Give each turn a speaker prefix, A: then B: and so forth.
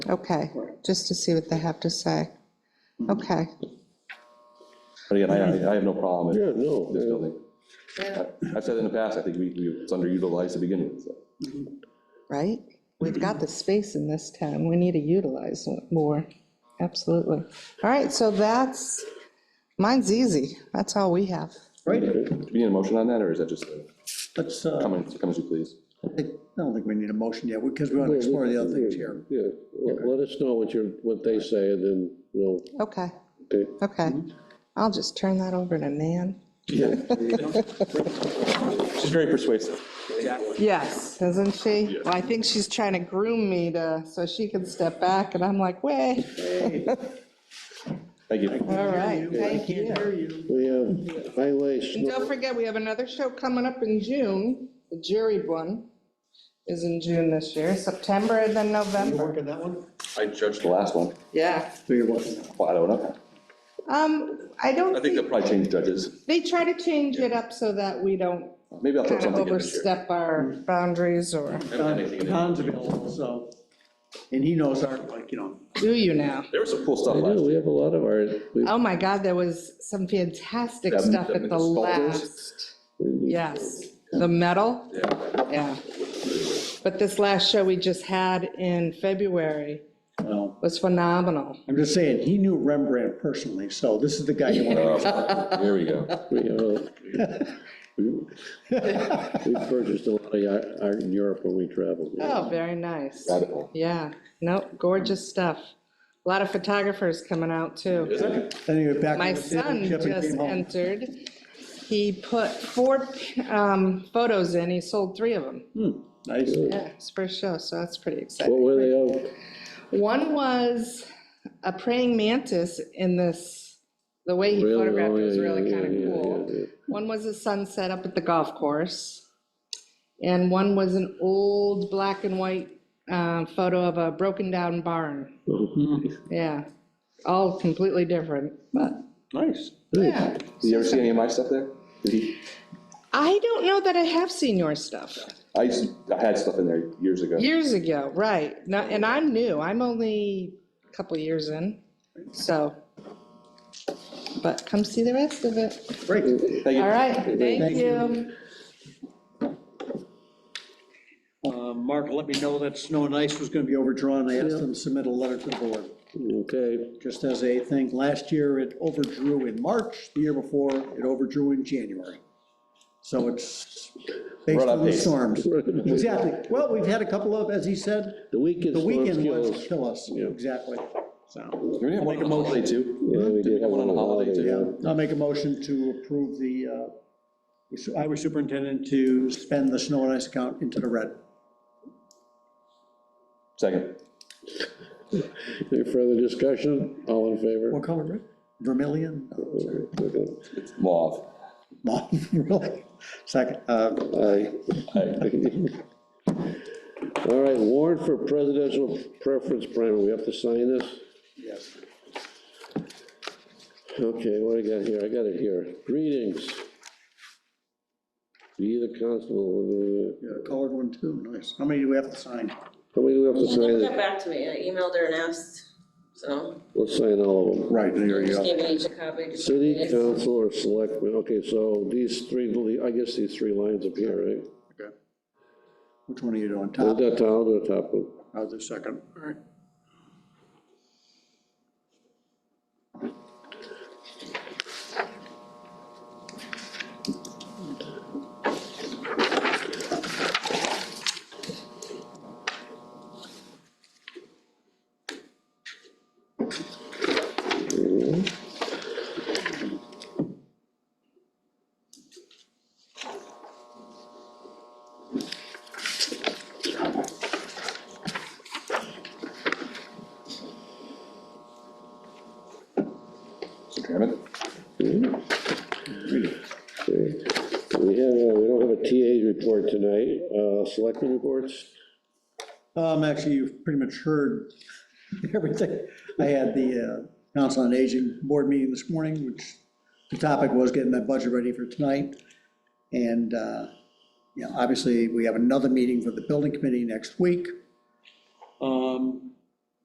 A: Okay, just to see what they have to say. Okay,
B: But again, I, I- I have no problem with
C: Yeah, no,
B: this
C: yeah.
B: building. I- I've said in the past, I think we, we- it's underutilized to begin with, so.
A: right? We've got the space in this town, we need to utilize it more, absolutely. All right, so that's, mine's easy, that's all we have.
D: Right,
B: Do we need a motion on that, or is that just a
D: let's, uh, I
B: comment, come as you please?
D: don't think- I don't think we need a motion yet, because we want to explore the other things here.
C: Yeah, let- let us know what you, what they say, and then we'll,
A: Okay,
C: okay.
A: okay. I'll just turn that over to Nan.
B: She's very persuasive.
A: Yes, isn't she? Well, I think she's trying to groom me to, so she can step back, and I'm like, wait,
B: Thank you.
A: all right, thank you.
C: We have highway,
A: And
C: snow-
A: don't forget, we have another show coming up in June. The jury one is in June this year, September and then
D: You
A: November.
D: work on that one?
B: I judged the last one.
A: Yeah.
D: So you're working.
B: Well, I don't know.
A: Um, I
B: I
A: don't
B: think they'll
A: think,
B: probably change judges.
A: they try to change it up so that we don't
B: Maybe I'll throw
A: kind of
B: something in this year.
A: overstep our boundaries or,
B: I haven't had anything in it.
D: Don's available, so, and he knows our, like, you know,
A: do you now?
B: There was some cool stuff
C: I
B: last
C: know,
B: year.
C: we have a lot of our, we-
A: Oh my God, there was some fantastic
B: Them-
A: stuff
B: them
A: at the
B: sculptors?
A: last. Yes, the metal.
B: Yeah.
A: Yeah. But this last show we just had in February
D: you know,
A: was phenomenal.
D: I'm just saying, he knew Rembrandt personally, so this is the guy you want to.
B: Oh, Here we go.
C: we, uh, we we purchased a lot of ya- art in Europe when we traveled.
A: Oh, very nice.
B: Rabbit hole.
A: Yeah, no, gorgeous stuff. A lot of photographers coming out too.
D: Then he went back.
A: My
D: on the table,
A: son
D: Chip, and
A: just
D: came home.
A: entered. He put four um, photos in, he sold three of them.
D: Nice.
A: Yeah, his first show, so that's pretty
C: What
A: exciting.
C: were they of?
A: One was a praying mantis in this, the way he
C: Really?
A: photographed it
C: Oh,
A: was
C: yeah,
A: really
C: yeah,
A: kind
C: yeah,
A: of cool.
C: yeah, yeah.
A: One was a sunset up at the golf course, and one was an old black and white uh, photo of a broken-down barn.
C: Oh,
A: Yeah, all completely different, but,
D: Nice.
A: yeah.
B: Did you ever see any of my stuff there? Did he?
A: I don't know that I have seen your stuff,
B: I used, to- I had stuff in there years ago.
A: years ago, right, No, and I'm new, I'm only a couple years in, so. But come see the rest of it.
D: Great.
B: Thank you.
A: All right, thank
D: Thank
A: you.
D: Uh, Mark let me know that snow and ice was going to be overdrawn. I asked them to submit a letter to the board.
C: Okay,
D: Just as a thing, last year it overdrew in March, the year before it overdrew in January. So it's based
B: Run on
D: on the
B: pace.
D: storms. Exactly. Well, we've had a couple of, as he said,
C: the weekend
D: the weekend
C: storms
D: ones
C: kill us.
D: kill us.
C: Yeah.
D: Exactly. So,
B: We have one on holiday too.
C: Yeah, we
B: Did we
C: did
B: have one on a holiday too?
D: yeah, I'll make a motion to approve the uh, highway superintendent to spend the snow and ice account into the red.
B: Second.
C: Any further discussion? All in favor?
D: What color, red? Vermilion? No, sorry.
B: It's mauve.
D: No, really? Second, uh,
C: Aye. All right, warrant for presidential preference primer, we have to sign this?
D: yes.
C: Okay, what do I got here? I got it here. Greetings. Be the constable.
D: Yeah, colored one too, nice. How many do we have to sign?
C: How many do we have to
E: She never
C: sign?
E: got back to me, I emailed her and asked, so,
C: Let's sign all of them.
D: Right, there
E: I just gave each a copy. just in
C: City
E: case.
C: council or selectmen, okay, so these three, I guess these three lines up here, right?
D: Which one are you on
C: I'll
D: top?
C: do the top, I'll do the top one.
D: I'll do second. All right.
B: Mr. Chairman?
C: Okay. We have, uh, we don't have a TA report tonight, uh, selectmen reports?
D: Um, actually, you've pretty much heard everything. I had the uh, Council on Aging Board meeting this morning, which the topic was getting that budget ready for tonight. And, uh, you know, obviously, we have another meeting for the building committee next week. Um,